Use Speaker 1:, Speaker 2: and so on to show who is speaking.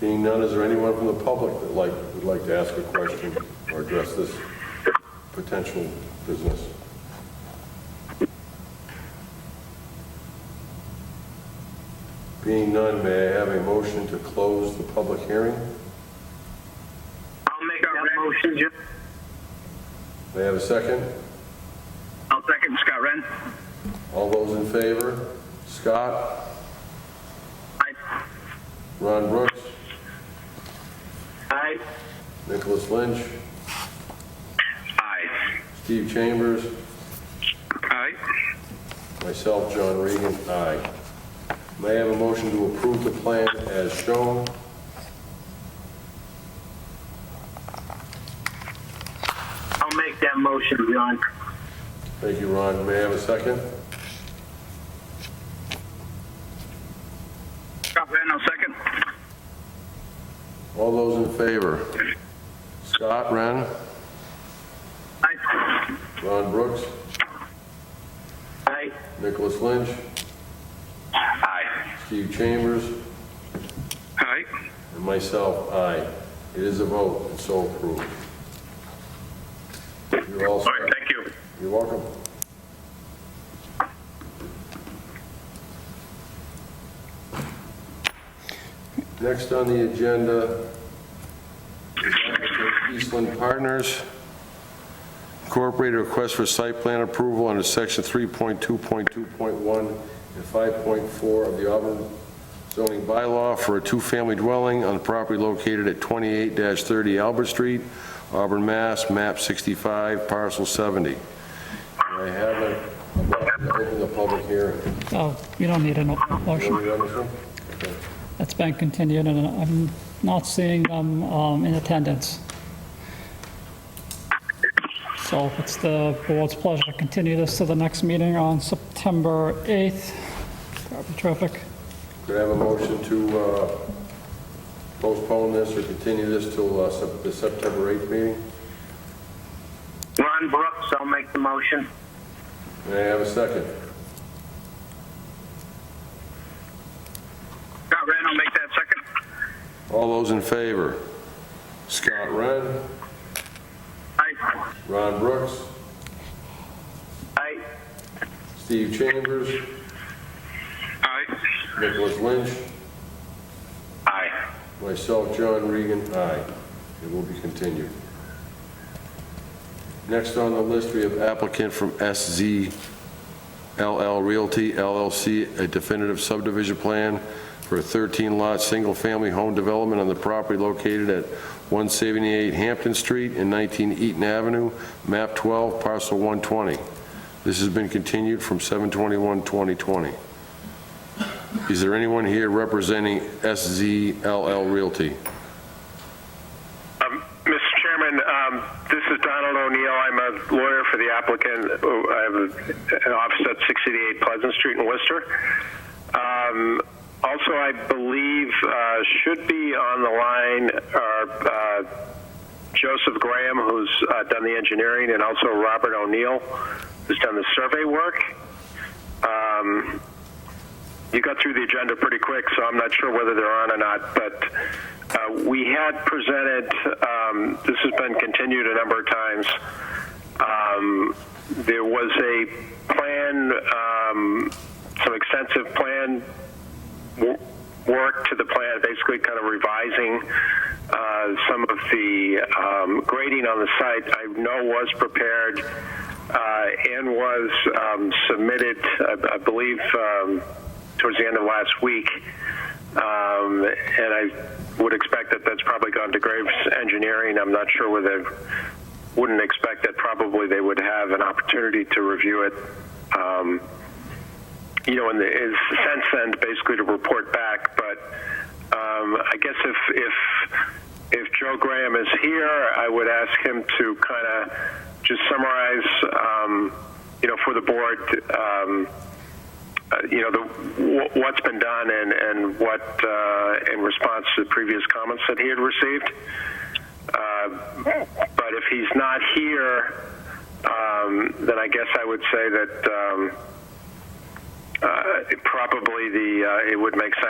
Speaker 1: Being none, is there anyone from the public that like, would like to ask a question or address this potential business? Being none, may I have a motion to close the public hearing?
Speaker 2: I'll make that motion, Jim.
Speaker 1: May I have a second?
Speaker 2: I'll second Scott Ren.
Speaker 1: All those in favor? Scott?
Speaker 2: Aye.
Speaker 1: Ron Brooks?
Speaker 2: Aye.
Speaker 1: Nicholas Lynch?
Speaker 2: Aye.
Speaker 1: Steve Chambers?
Speaker 2: Aye.
Speaker 1: Myself, John Regan, aye. May I have a motion to approve the plan as shown?
Speaker 2: I'll make that motion, John.
Speaker 1: Thank you, Ron. May I have a second?
Speaker 2: Scott Ren, I'll second.
Speaker 1: All those in favor? Scott Wren,
Speaker 2: Aye.
Speaker 1: Ron Brooks,
Speaker 2: Aye.
Speaker 1: Nicholas Lynch,
Speaker 2: Aye.
Speaker 1: Steve Chambers,
Speaker 2: Aye.
Speaker 1: and myself, aye. It is a vote, and so approved. You're all
Speaker 2: All right,
Speaker 1: set.
Speaker 2: thank you.
Speaker 1: You're welcome. Next on the agenda is applicant Eastland Partners Incorporated request for site plan approval under section 3.2.2.1 and 5.4 of the Auburn zoning bylaw for a two-family dwelling on the property located at 28-30 Albert Street, Auburn, Mass., map 65, parcel 70. I have a, I'm going to open the public hearing.
Speaker 3: Oh, you don't need an open
Speaker 1: You want
Speaker 3: motion.
Speaker 1: me to open this one? Okay.
Speaker 3: It's been continued, and I'm not seeing them um, in attendance. So it's the board's pleasure to continue this to the next meeting on September 8th. Probably terrific.
Speaker 1: Could I have a motion to uh, postpone this or continue this till uh, Sep- the September 8th meeting?
Speaker 2: Ron Brooks, I'll make the motion.
Speaker 1: May I have a second?
Speaker 2: Scott Ren, I'll make that second.
Speaker 1: All those in favor? Scott Wren,
Speaker 2: Aye.
Speaker 1: Ron Brooks,
Speaker 2: Aye.
Speaker 1: Steve Chambers,
Speaker 2: Aye.
Speaker 1: Nicholas Lynch,
Speaker 2: Aye.
Speaker 1: myself, John Regan, aye. It will be continued. Next on the list, we have applicant from SZ LL Realty LLC, a definitive subdivision plan for a 13-lot, single-family home development on the property located at 178 Hampton Street and 19 Eaton Avenue, map 12, parcel 120. This has been continued from 7/21/2020. Is there anyone here representing SZLL Realty?
Speaker 4: Um, Mr. Chairman, um, this is Donald O'Neill. I'm a lawyer for the applicant. I have an office at 688 Pleasant Street in Worcester. Um, Also, I believe uh, should be on the line are uh, Joseph Graham, who's uh, done the engineering, and also Robert O'Neill, who's done the survey work. Um, you got through the agenda pretty quick, so I'm not sure whether they're on or not, but uh, we had presented, um, this has been continued a number of times, um, there was a plan, um, some extensive plan w- work to the plan, basically kind of revising uh, some of the um, grading on the site, I know was prepared uh, and was um, submitted, I, I believe, um, towards the end of last week. Um, and I would expect that that's probably gone to Graves Engineering. I'm not sure whether, wouldn't expect that probably they would have an opportunity to review it. Um, you know, in the is sense then basically to report back. But um, I guess if if if Joe Graham is here, I would ask him to kind of just summarize, um, you know, for the board, um, uh, you know, the, wh- what's been done and and what uh, in response to the previous comments that he had received. Uh, but if he's not here, um, then I guess I would say that. Um, uh, probably the uh, it would make sense